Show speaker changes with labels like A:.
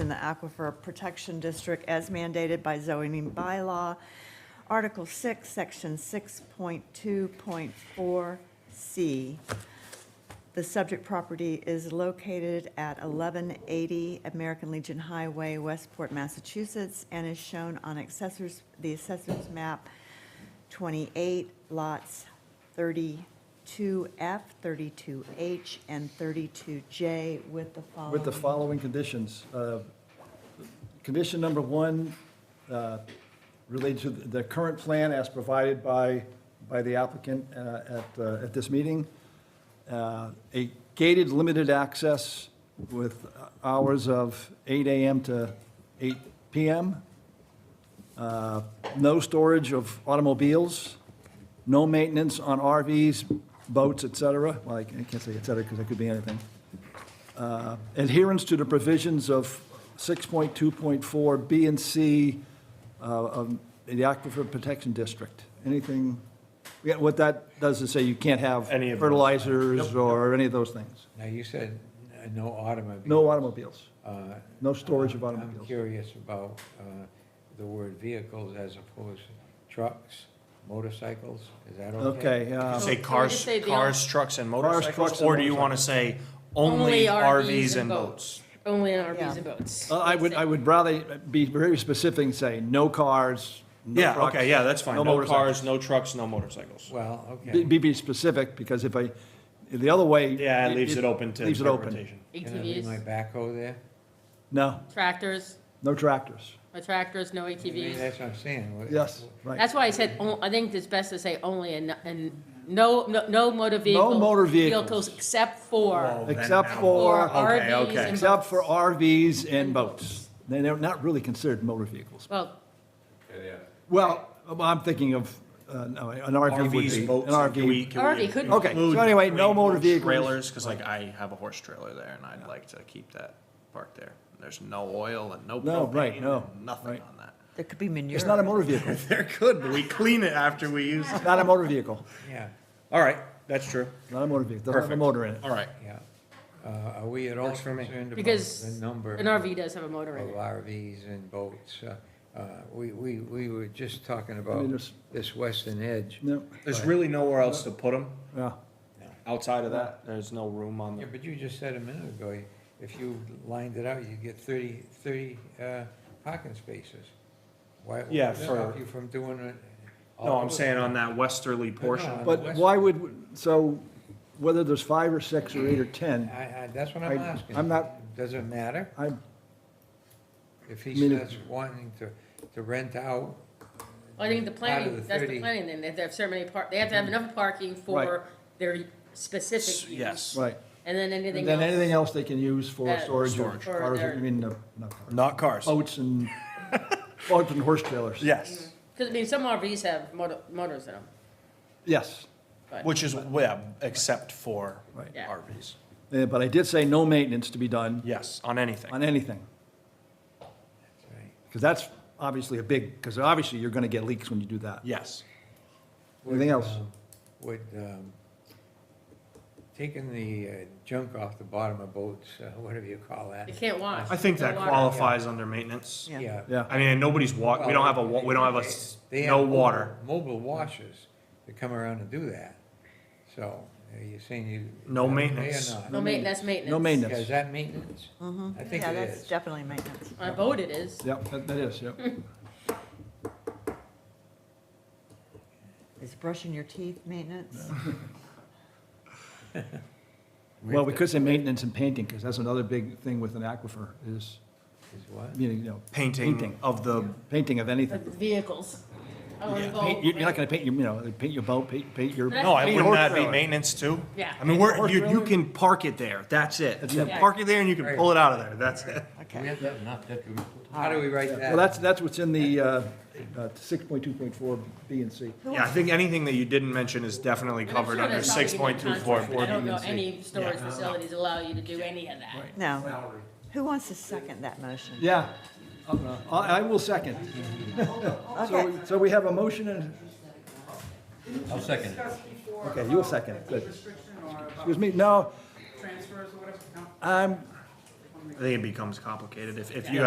A: in the Aquifer Protection District as mandated by zoning bylaw, Article 6, Section 6.2.4C. The subject property is located at 1180 American Legion Highway, Westport, Massachusetts, and is shown on assessors, the assessors map 28, lots 32F, 32H, and 32J with the following.
B: With the following conditions. Uh, Condition number one uh, related to the current plan as provided by, by the applicant uh, at, uh, at this meeting. Uh, A gated, limited access with hours of 8 AM to 8 PM. Uh, No storage of automobiles, no maintenance on RVs, boats, et cetera. Well, I can't say et cetera because it could be anything uh, adherence to the provisions of 6.2.4 B and C uh, of the Aquifer Protection District. Anything, yeah, what that does is say you can't have
C: Any of those.
B: fertilizers or any of those things.
D: Now, you said uh, no automobiles.
B: No automobiles,
D: Uh,
B: no storage of
D: I'm
B: automobiles.
D: curious about uh, the word vehicles as opposed to trucks, motorcycles, is that
B: Okay,
D: okay?
B: uh,
C: Say
E: So we
C: cars,
E: just say the
C: Um, cars, trucks, and
B: trucks,
C: motorcycles,
B: and
C: or do you want to say only RVs and boats?
E: Only in RVs
A: Yeah.
E: and boats.
B: uh, I would, I would rather be very specific and say no cars, no
C: Yeah,
B: trucks,
C: okay, yeah, that's fine. No
B: motorcycles.
C: cars, no trucks, no motorcycles.
D: Well,
B: Be-
D: okay.
B: Be, be specific, because if I, the other way.
C: Yeah, it leaves it open to
B: Leaves it open.
C: interpretation.
D: Can I leave my
E: ATVs,
D: backhoe there?
B: No,
E: tractors,
B: no tractors.
E: no tractors, no
D: I mean,
E: ATVs.
D: That's what I'm saying. What-
B: Yes, right.
E: That's why I said, on- I think it's best to say only and, and no, no, no motor vehicles.
B: motor vehicles.
E: except for,
B: Except
E: for
B: for,
C: Okay,
E: RVs
C: okay.
E: and boats.
B: except for RVs and boats. They- They're not really considered motor vehicles.
E: Well,
B: Well, I'm thinking of, uh, no, an RV would be.
C: RVs,
B: an
C: boats,
B: RV.
C: can we? can
E: RV
C: we
E: could be.
B: Okay, so
C: include
B: anyway, no
C: three
B: motor vehicles.
C: Trailers, because like I have a horse trailer there, and I'd like to keep that parked there. There's no oil and no
B: No, right,
C: propane,
B: no,
C: and nothing
B: right.
C: on that.
A: There could be manure.
B: It's not a motor vehicle,
C: There could, but we clean it after we use it.
B: not a motor vehicle,
D: Yeah,
C: All right, that's true.
B: not a motor vehicle, doesn't have a
C: Perfect.
B: motor in it.
C: All right.
D: yeah. Uh, Are we at all concerned about the
E: because
D: number? Oh,
E: an RV does have a motor in
D: of
E: it.
D: RVs and boats. Uh, uh, We, we, we were just talking about
B: mean, there's-
D: this western edge.
B: No,
C: There's really nowhere else to put them
B: yeah,
C: outside of that. There's no room on
D: Yeah,
C: the.
D: but you just said a minute ago, if you lined it out, you'd get 30, 30 uh, parking spaces. Why, what
C: Yeah,
D: would stop
C: for-
D: you from doing it?
C: Oh, No,
D: all
C: I'm
D: the-
C: saying on that westerly portion.
D: no.
B: but why would, so whether there's five or six or eight or 10,
D: I, I, that's what I'm
B: I-
D: asking.
B: I'm not-
D: Does it matter?
B: I,
D: If he
B: mean,
D: starts wanting to, to rent out,
E: I think the
D: Out of
E: planning,
D: the
E: that's the
D: 30.
E: planning, then, they have to have so many par, they have to have enough parking for
B: Right.
E: their specific use.
C: Yes.
B: right.
E: And then
B: And
E: anything else.
B: then anything else they can use for
E: Uh,
B: storage of
C: Storage.
E: Or
B: cars, I
E: their-
B: mean, no, not cars,
C: Not cars.
B: boats and, boats and horse trailers.
C: Yes.
E: Because, I mean, some RVs have motor, motors in them.
B: Yes.
C: Which is, yeah, except for
B: Right.
E: Yeah.
C: RVs.
B: Uh, But I did say no maintenance to be done
C: Yes, on anything.
B: on anything, because that's obviously a big, because obviously you're going to get leaks when you do that.
C: Yes.
B: Anything else?
D: Would, um, taking the uh, junk off the bottom of boats, uh, whatever you call that.
E: You can't wash.
C: I think
E: no
C: that
E: water.
C: qualifies under maintenance.
A: Yeah.
B: Yeah,
C: I mean, nobody's wa, Uh, we don't have a, wa- we don't have a, s-
D: They have
C: no
D: mobile-
C: water,
D: Mobile washers that come around and do that. So are you saying you?
C: No
D: are they or
C: maintenance.
D: not?
E: No maintenance, maintenance.
B: no
D: Yeah,
B: maintenance.
D: Is that maintenance? I think
A: Yeah,
D: it
A: that's
D: is.
A: definitely maintenance.
E: On a boat it is.
B: Yep, that that is, yep.
A: Is brushing your teeth maintenance?
B: Well, we could say maintenance and painting, because that's another big thing with an aquifer is,
D: Is what?
B: you know, you know,
C: painting
B: Painting.
C: of the,
B: painting of
E: But
B: anything.
E: Vehicles. I wanna
C: Yeah.
E: go-
B: Paint- You're not going to paint your, you know, paint your boat, paint paint your.
C: no, I
B: paint your
C: wouldn't
B: horse
C: that be
B: trailer.
C: maintenance too?
E: Yeah.
C: I mean, we're,
B: Horse
C: you, you
B: trailer?
C: can park it there, that's it.
B: That's
C: You
B: it.
C: can park it there and you can pull it out of there, that's it.
A: Okay.
D: How do we write that?
B: Well, that's, that's what's in the uh, uh, 6.2.4 B and C.
C: Yeah, I think anything that you didn't mention is definitely
E: And I'm
C: covered
E: sure
C: under
E: that's probably in
C: six
E: the
C: point two four
E: contract, but
C: four
E: I don't
C: B
E: know
C: and C.
E: any storage facilities allow you to do any of that.
A: No. Who wants to second that motion?
B: Yeah, Uh, I I will second.
A: Okay.
B: So, so we have a motion and,
F: I'll second it.
B: okay, you'll second it, good.
G: Restriction or about
B: Excuse me, no,
G: transfers or whatever? No?
B: I'm,
C: I think it becomes complicated if, if you